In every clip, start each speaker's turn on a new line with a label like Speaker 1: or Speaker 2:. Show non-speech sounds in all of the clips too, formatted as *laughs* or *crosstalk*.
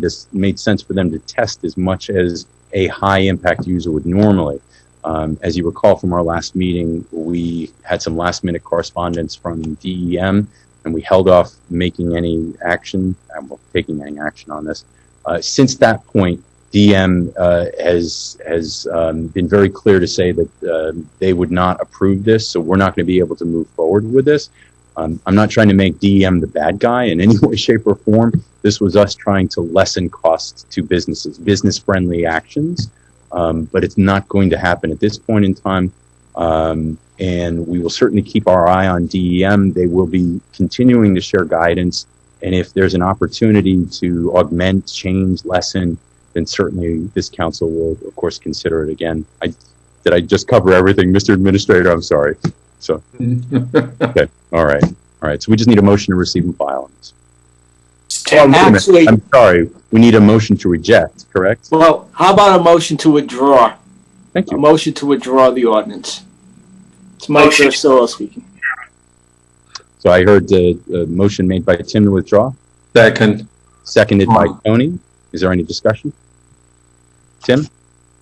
Speaker 1: made, us, made sense for them to test as much as a high impact user would normally. Um, as you recall from our last meeting, we had some last minute correspondence from DEM and we held off making any action, and well, taking any action on this. Uh, since that point, DM uh, has has um, been very clear to say that uh, they would not approve this, so we're not going to be able to move forward with this. Um, I'm not trying to make DEM the bad guy in any *laughs* way, shape, or form. This was us trying to lessen costs to businesses, business friendly actions, um, but it's not going to happen at this point in time. Um, and we will certainly keep our eye on DEM. They will be continuing to share guidance. And if there's an opportunity to augment, change, lessen, then certainly this council will, of course, consider it again. I, did I just cover everything, Mr. Administrator? I'm sorry. So, okay. All right. All right. So we just need a motion to receive and file. on this. Oh, wait a minute.
Speaker 2: Actually,
Speaker 1: I'm sorry. We need a motion to reject, correct?
Speaker 2: well, how about a motion to withdraw?
Speaker 1: Thank
Speaker 2: A
Speaker 1: you.
Speaker 2: motion to withdraw the ordinance. It's Mike
Speaker 3: Motion.
Speaker 2: Versillo speaking.
Speaker 1: So I heard the, the motion made by Tim to withdraw,
Speaker 4: *laughs* Second.
Speaker 1: seconded by Tony. Is there any discussion? Tim,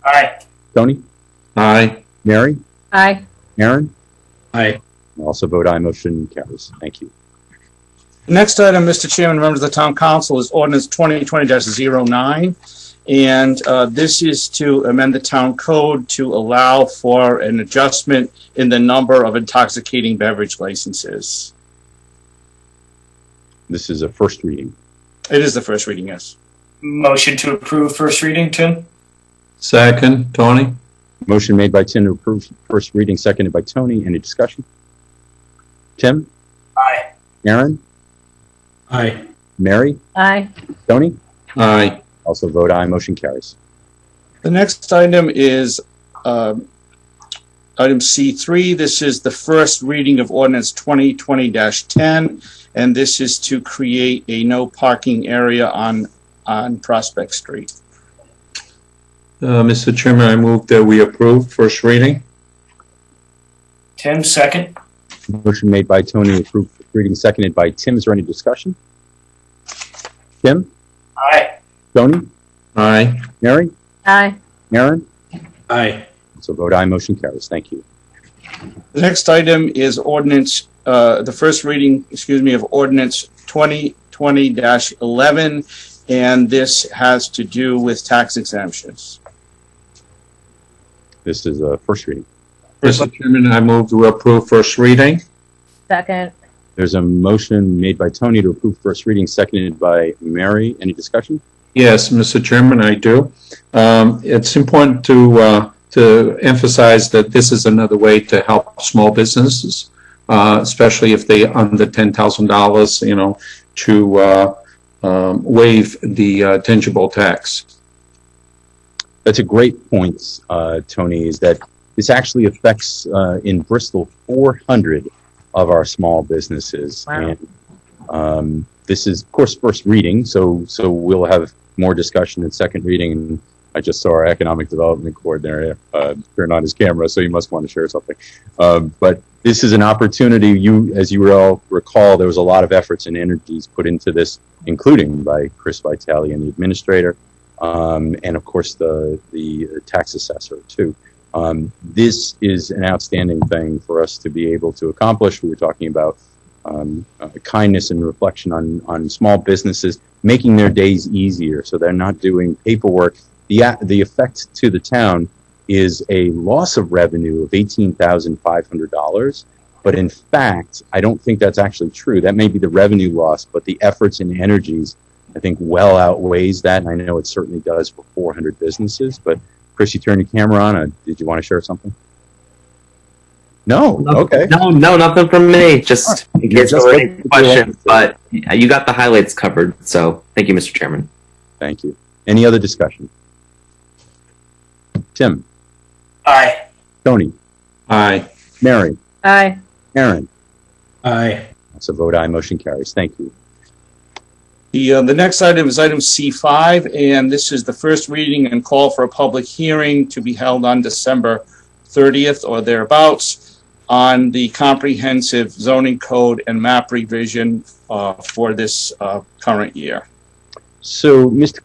Speaker 3: Aye.
Speaker 1: Tony,
Speaker 4: Aye.
Speaker 1: Mary,
Speaker 5: Aye.
Speaker 1: Aaron?
Speaker 4: Aye.
Speaker 1: I Also vote aye, motion carries. Thank you.
Speaker 6: Next item, Mr. Chairman, members of the town council, is ordinance 2020-09. And uh, this is to amend the town code to allow for an adjustment in the number of intoxicating beverage licenses.
Speaker 1: This is a first reading.
Speaker 6: It is the first reading, yes.
Speaker 3: Motion to approve first reading, Tim?
Speaker 4: Second, Tony?
Speaker 1: Motion made by Tim to approve first reading, seconded by Tony. Any discussion? Tim,
Speaker 3: Aye.
Speaker 1: Aaron,
Speaker 4: Aye.
Speaker 1: Mary,
Speaker 5: Aye.
Speaker 1: Tony?
Speaker 4: Aye.
Speaker 1: Also vote aye, motion carries.
Speaker 6: The next item is um, item C3. This is the first reading of ordinance 2020-10, and this is to create a no parking area on on Prospect Street.
Speaker 4: Uh, Mr. Chairman, I move that we approve first reading.
Speaker 3: Tim, second?
Speaker 1: Motion made by Tony, approved first reading, seconded by Tim. Is there any discussion? Tim,
Speaker 3: Aye.
Speaker 1: Tony,
Speaker 4: Aye.
Speaker 1: Mary,
Speaker 5: Aye.
Speaker 1: Aaron?
Speaker 4: Aye.
Speaker 1: So vote aye, motion carries. Thank you.
Speaker 6: The next item is ordinance, uh, the first reading, excuse me, of ordinance 2020-11, and this has to do with tax exemptions.
Speaker 1: This is a first reading.
Speaker 4: Mr. Chairman, I move to approve first reading.
Speaker 5: Second.
Speaker 1: There's a motion made by Tony to approve first reading, seconded by Mary. Any discussion?
Speaker 4: Yes, Mr. Chairman, I do. Um, it's important to, uh, to emphasize that this is another way to help small businesses, uh, especially if they under ten thousand dollars, you know, to, uh, um, waive the uh, tangible tax.
Speaker 1: That's a great point, uh, Tony, is that this actually affects uh, in Bristol 400 of our small businesses.
Speaker 5: Wow.
Speaker 1: And um, this is, of course, first reading, so, so we'll have more discussion in second reading. And I just saw our economic development coordinator uh, turn on his camera, so you must want to share something. Um, but this is an opportunity. You, as you all recall, there was a lot of efforts and energies put into this, including by Chris Vitale and the administrator um, and of course the the tax assessor too. Um, this is an outstanding thing for us to be able to accomplish. We were talking about um, uh, kindness and reflection on on small businesses, making their days easier so they're not doing paperwork. The a- the effect to the town is a loss of revenue of eighteen thousand five hundred dollars. But in fact, I don't think that's actually true. That may be the revenue loss, but the efforts and energies I think well outweighs that, and I know it certainly does for 400 businesses. But Chris, you turned your camera on. Uh, did you want to share something? No. Okay.
Speaker 7: No, no, nothing from me. Just
Speaker 1: You're
Speaker 7: in case
Speaker 1: just
Speaker 7: there were any
Speaker 1: looking for
Speaker 7: questions, but yeah, you got the highlights covered. So thank you, Mr. Chairman.
Speaker 1: Thank you. Any other discussion? Tim,
Speaker 3: Aye.
Speaker 1: Tony,
Speaker 4: Aye.
Speaker 1: Mary,
Speaker 5: Aye.
Speaker 1: Aaron.
Speaker 4: Aye.
Speaker 1: That's a vote aye. Motion carries. Thank you.
Speaker 6: The, uh, the next item is item C5, and this is the first reading and call for a public hearing to be held on December 30th or thereabouts on the comprehensive zoning code and map revision uh, for this uh, current year.
Speaker 1: So, Mr.